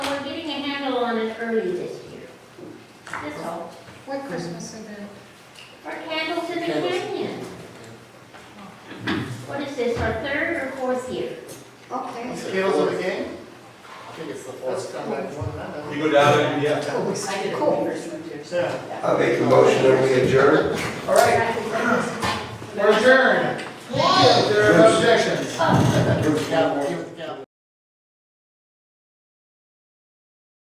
on it early this year. That's all. What Christmas is it? Our candles in the Candles. canyon. What is this, our third or fourth year? Okay. Skills of the game? I think it's the fourth. You go down there, yeah. I did a Cool. reimbursement too, so. Yeah. yeah. I make a motion that we adjourn. All right, we're adjourned. If there are no objections. Oh, Yeah, well, you-